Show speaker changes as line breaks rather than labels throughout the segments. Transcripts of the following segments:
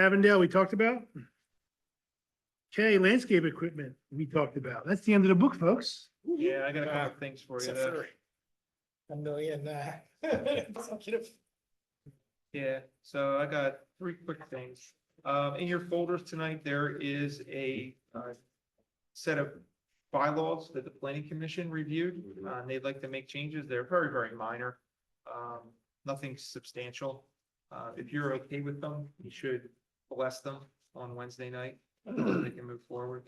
Avondale, we talked about. Okay, landscape equipment, we talked about. That's the end of the book, folks.
Yeah, I got a couple of things for you.
Except
though.
for A million, uh. executive.
Yeah, so I got three quick things. Um, in your folders tonight, there is a, uh, set of bylaws that the planning commission reviewed, uh, and they'd like to make changes. They're very, very minor. Um, nothing substantial. Uh, if you're okay with them, you should bless them on Wednesday night, so they can move forward.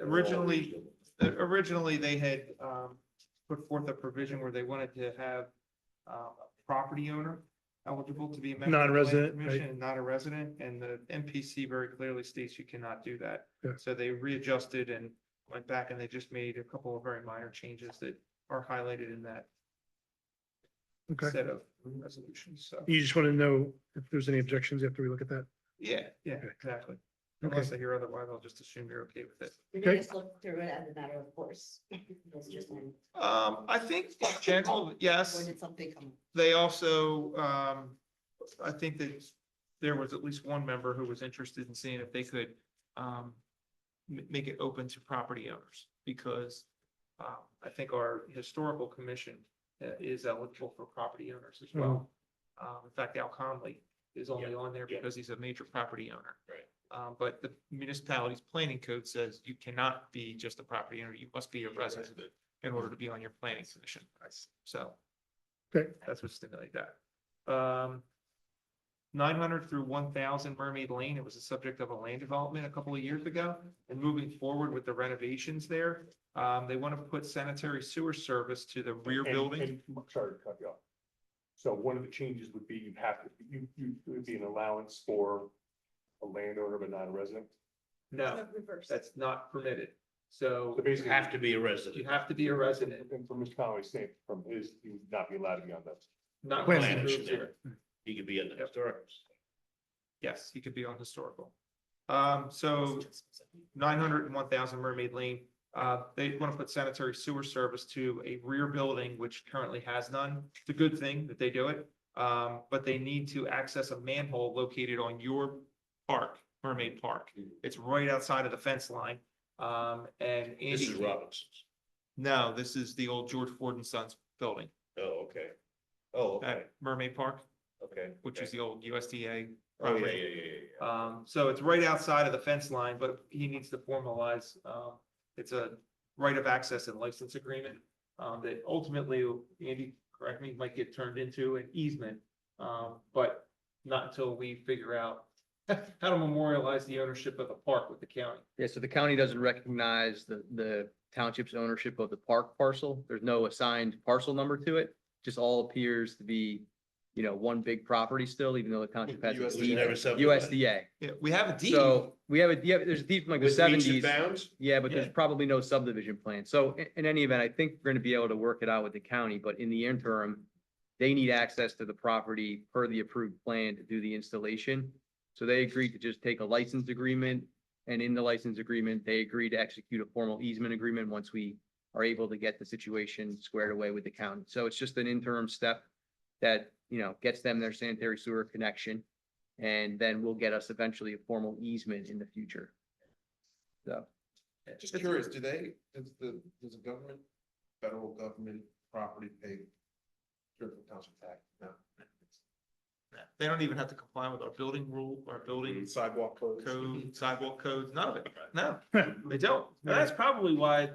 Originally, uh, originally, they had um put forth a provision where they wanted to have um a property owner eligible to be a member. of the
Non-resident,
planning
right.
commission and Not a resident, and the MPC very clearly states you cannot do that.
Yeah.
So they readjusted and went back and they just made a couple of very minor changes that are highlighted in that
Okay,
set of resolutions, so.
you just want to know if there's any objections after we look at that.
Yeah, yeah,
Okay.
exactly.
Okay.
Unless I hear otherwise, I'll just assume you're okay with it.
You're gonna
Okay.
just look through it as a matter of course. It's just when,
Um, I think in general, yes.
when did something come?
They also, um, I think that there was at least one member who was interested in seeing if they could, um, ma- make it open to property owners, because, uh, I think our historical commission uh, is eligible for property owners as well. Um, in fact, Al Conley is only on there
Mm-hmm. yeah.
because he's a major property owner.
Right.
Um, but the municipality's planning code says you cannot be just a property owner, you must be a resident in order to be on your planning commission. So.
Okay.
That's what stimulated that. Um. Nine hundred through one thousand Mermaid Lane, it was the subject of a land development a couple of years ago, and moving forward with the renovations there. Um, they want to put sanitary sewer service to the rear
And-
building.
and- I'm Sorry to cut you off. So one of the changes would be you have to, you, you, it would be an allowance for a landowner but not a resident.
No,
Reverse.
that's not permitted. So
So basically.
Have to be a
you
resident.
have to be a resident,
And from Mr. Conway's saying, from his, he would not be allowed to be on that.
not.
Planning
resident
commission
sewer.
there. You could be in the historic.
Yes, he could be on historical. Um, so nine hundred and one thousand Mermaid Lane. Uh, they want to put sanitary sewer service to a rear building which currently has none. It's a good thing that they do it. Um, but they need to access a manhole located on your park, Mermaid Park. It's right outside of the fence line. Um, and Andy.
This is Robinson's.
No, this is the old George Ford and Sons building
Oh, okay. Oh, okay,
at Mermaid Park,
okay.
which
okay.
is the old USDA
Oh, yeah,
property.
yeah, yeah, yeah, yeah.
Um, so it's right outside of the fence line, but he needs to formalize, um, it's a right of access and license agreement. Um, that ultimately, Andy, correct me, might get turned into an easement, um, but not until we figure out how to memorialize the ownership of the park with the county.
Yeah, so the county doesn't recognize the, the township's ownership of the park parcel. There's no assigned parcel number to it. Just all appears to be, you know, one big property still, even though the township has. a
US
deed.
never subdivided.
USDA.
Yeah, we have a deed.
So we have a, yeah, there's a deed from like the
With meets and
seventies.
bounds?
Yeah, but there's
Yeah.
probably no subdivision plan. So in, in any event, I think we're gonna be able to work it out with the county, but in the interim, they need access to the property per the approved plan to do the installation. So they agreed to just take a license agreement, and in the license agreement, they agreed to execute a formal easement agreement once we are able to get the situation squared away with the county. So it's just an interim step that, you know, gets them their sanitary sewer connection, and then will get us eventually a formal easement in the future. So.
Just curious, do they, does the, does the government, federal government property pay Fairfield township tax? No.
They don't even have to comply with our building rule, our building
Sidewalk codes?
code, sidewalk codes, none of it. No, they don't. Mm-hmm. And that's probably why the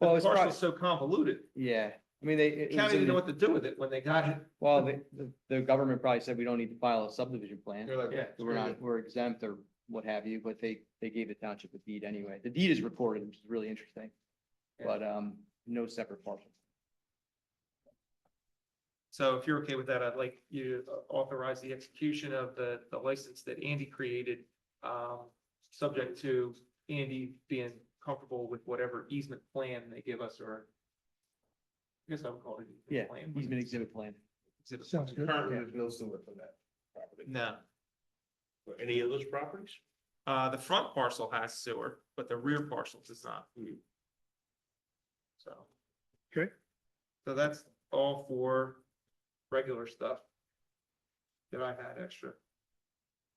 Well, it's probably,
parcel's so convoluted.
yeah, I mean, they. it- it was
County
in
didn't know
the-
what to do with it when they got it.
Well, the, the, the government probably said we don't need to file a subdivision plan,
They're like,
Yeah.
so we're not, we're exempt or what have you, but they, they gave the township a deed anyway. The deed is recorded, which is really interesting.
Yeah.
But, um, no separate parcel.
So if you're okay with that, I'd like you to authorize the execution of the, the license that Andy created, um, subject to Andy being comfortable with whatever easement plan they give us or I guess I would call it. an
Yeah,
easement plan.
he's been exhibit plan.
Exhibit plan.
Sounds good.
Currently, there's no sewer for that property.
No,
For any of those properties?
uh, the front parcel has sewer, but the rear parcel does not. So.
Okay.
So that's all for regular stuff that I had extra.